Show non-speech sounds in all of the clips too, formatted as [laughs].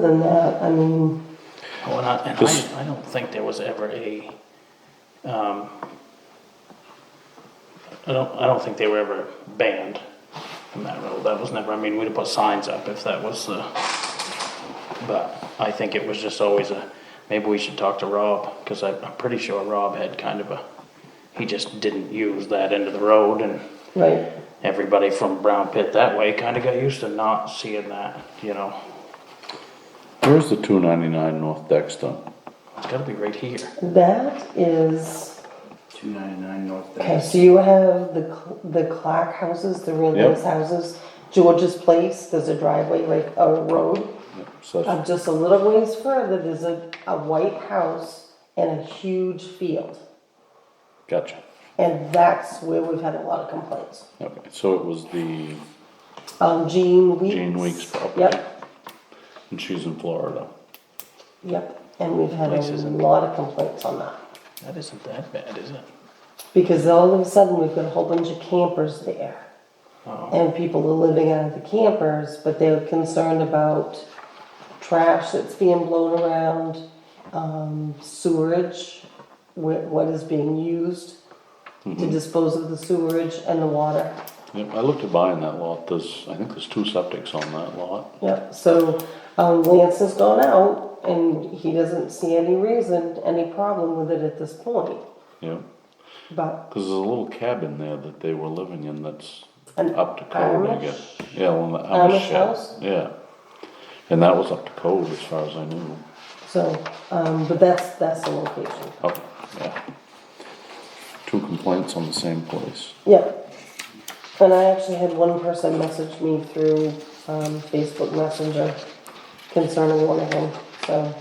than that, I mean, Well, Oh, and I, and This- I, I don't think there was ever a, um, I don't, I don't think they were ever banned from that road. That was never, I mean, we'd have put signs up if that was the, but I think it was just always a, maybe we should talk to Rob, cause I, I'm pretty sure Rob had kind of a, he just didn't use that end of the road and right, everybody from Brown Pit that way kinda got used to not seeing that, you know? Where's the two ninety-nine North Dexter? It's gotta be right here. that is, 299 North okay, Dennis. so you have the, Cl- the Clark houses, the real Yep. nice houses, George's Place, there's a driveway, like a road. So Uh, that's- just a little ways further, there's a, a white house and a huge field, gotcha. and that's where we've had a lot of complaints. Okay, so it was the Um, Jean Weeks. Jean Weeks property. Yep, And she's in Florida. yep, and we've had a Places in- lot of complaints on that. That isn't that bad, is it? Because all of a sudden, we've got a whole bunch of campers there. And people are living out of the campers, but they're concerned about trash that's being blown around, um, sewerage, wh- what is being used to dispose of the sewerage and the water. Yep, I looked at buying that lot. There's, I think there's two septics on that lot. Yep, so, um, Lance has gone out and he doesn't see any reason, any problem with it at this point. Yeah, But because there's a little cabin there that they were living in that's An up to code, I Amish? guess. Yeah, on the Amish Amish house? shed. Yeah. And that was up to code as far as I knew. So, um, but that's, that's the location. Oh, yeah. Two complaints on the same place. Yeah. And I actually had one person message me through um, Facebook Messenger concerning one of them, so.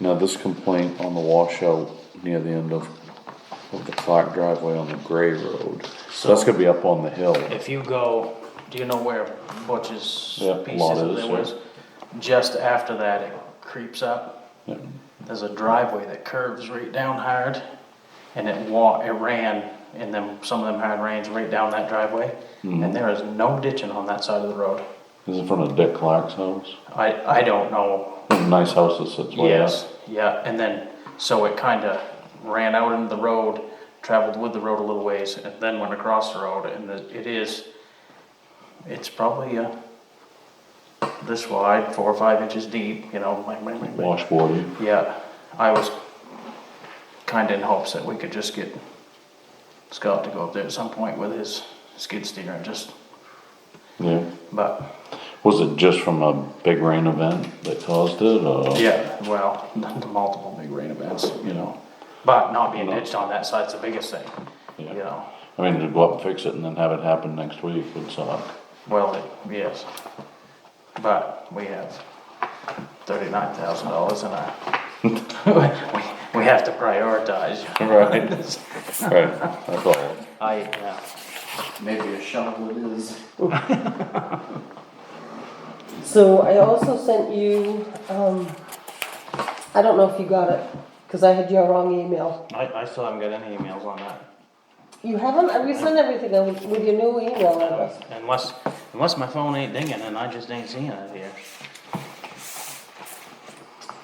Now, this complaint on the washout near the end of, of the Clark driveway on the Gray Road, so that's gonna be up on the hill. If you go, do you know where Butch's Yeah, lot pieces is, there yeah. was? Just after that, it creeps up. Yeah. There's a driveway that curves right down hard, and it wa, it ran, and then some of them hard rains right down that driveway. Mm-hmm. And there is no ditching on that side of the road. It's in front of Dick Clark's house, I, I don't know nice house that sits way up. Yes, yeah, and then, so it kinda ran out into the road, traveled with the road a little ways, and then went across the road, and it it is, it's probably, uh, this wide, four or five inches deep, you know, like, like, like, like, Washboardy, yeah, I was kinda in hopes that we could just get Scott to go up there at some point with his skid steer and just, yeah. but, Was it just from a big rain event that caused it, or? yeah, well, [laughs] the multiple big rain events, you know. But not being ditched on that side's the biggest thing, you Yeah. know. I mean, to go up and fix it and then have it happen next week would suck. Well, it- yes. But we have thirty-nine thousand dollars in our, [laughs] we, we have to prioritize. Right. [laughs] Right, that's all. [laughs] I, yeah. Maybe a shovel it is. So I also sent you, um, I don't know if you got it, because I had your wrong email. I, I still haven't got any emails on that. You haven't, I resent everything out with your new email address. Unless, unless my phone ain't dinging and I just ain't seeing it here.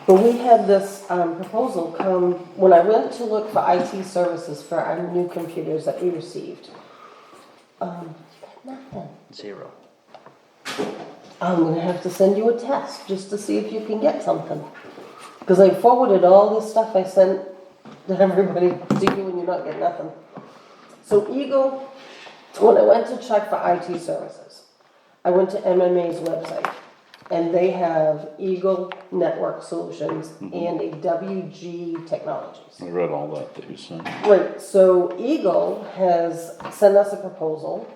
But we had this, um, proposal come, when I went to look for IT services for our new computers that we received. Um, nothing. Zero. I'm gonna have to send you a test just to see if you can get something. Cause I forwarded all this stuff I sent to everybody [laughs] to you and you're not getting nothing. So Eagle, when I went to check for IT services, I went to MMA's website and they have Eagle Network Solutions and a WG Technologies. I read all that that you sent. Right, so Eagle has sent us a proposal.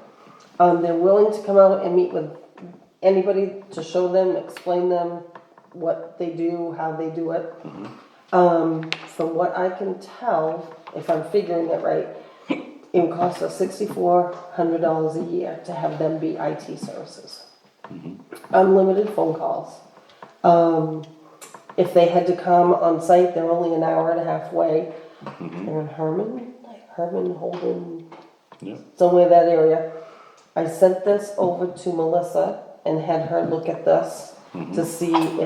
Um, they're willing to come out and meet with anybody to show them, explain them what they do, how they do it. Um, from what I can tell, if I'm figuring it right, it would cost us sixty-four hundred dollars a year to have them be IT services. Unlimited phone calls. Um, if they had to come on site, they're only an hour and a half away. They're in Herman, like Herman, Holden, Yep. somewhere that area. I sent this over to Melissa and had her look at this. to see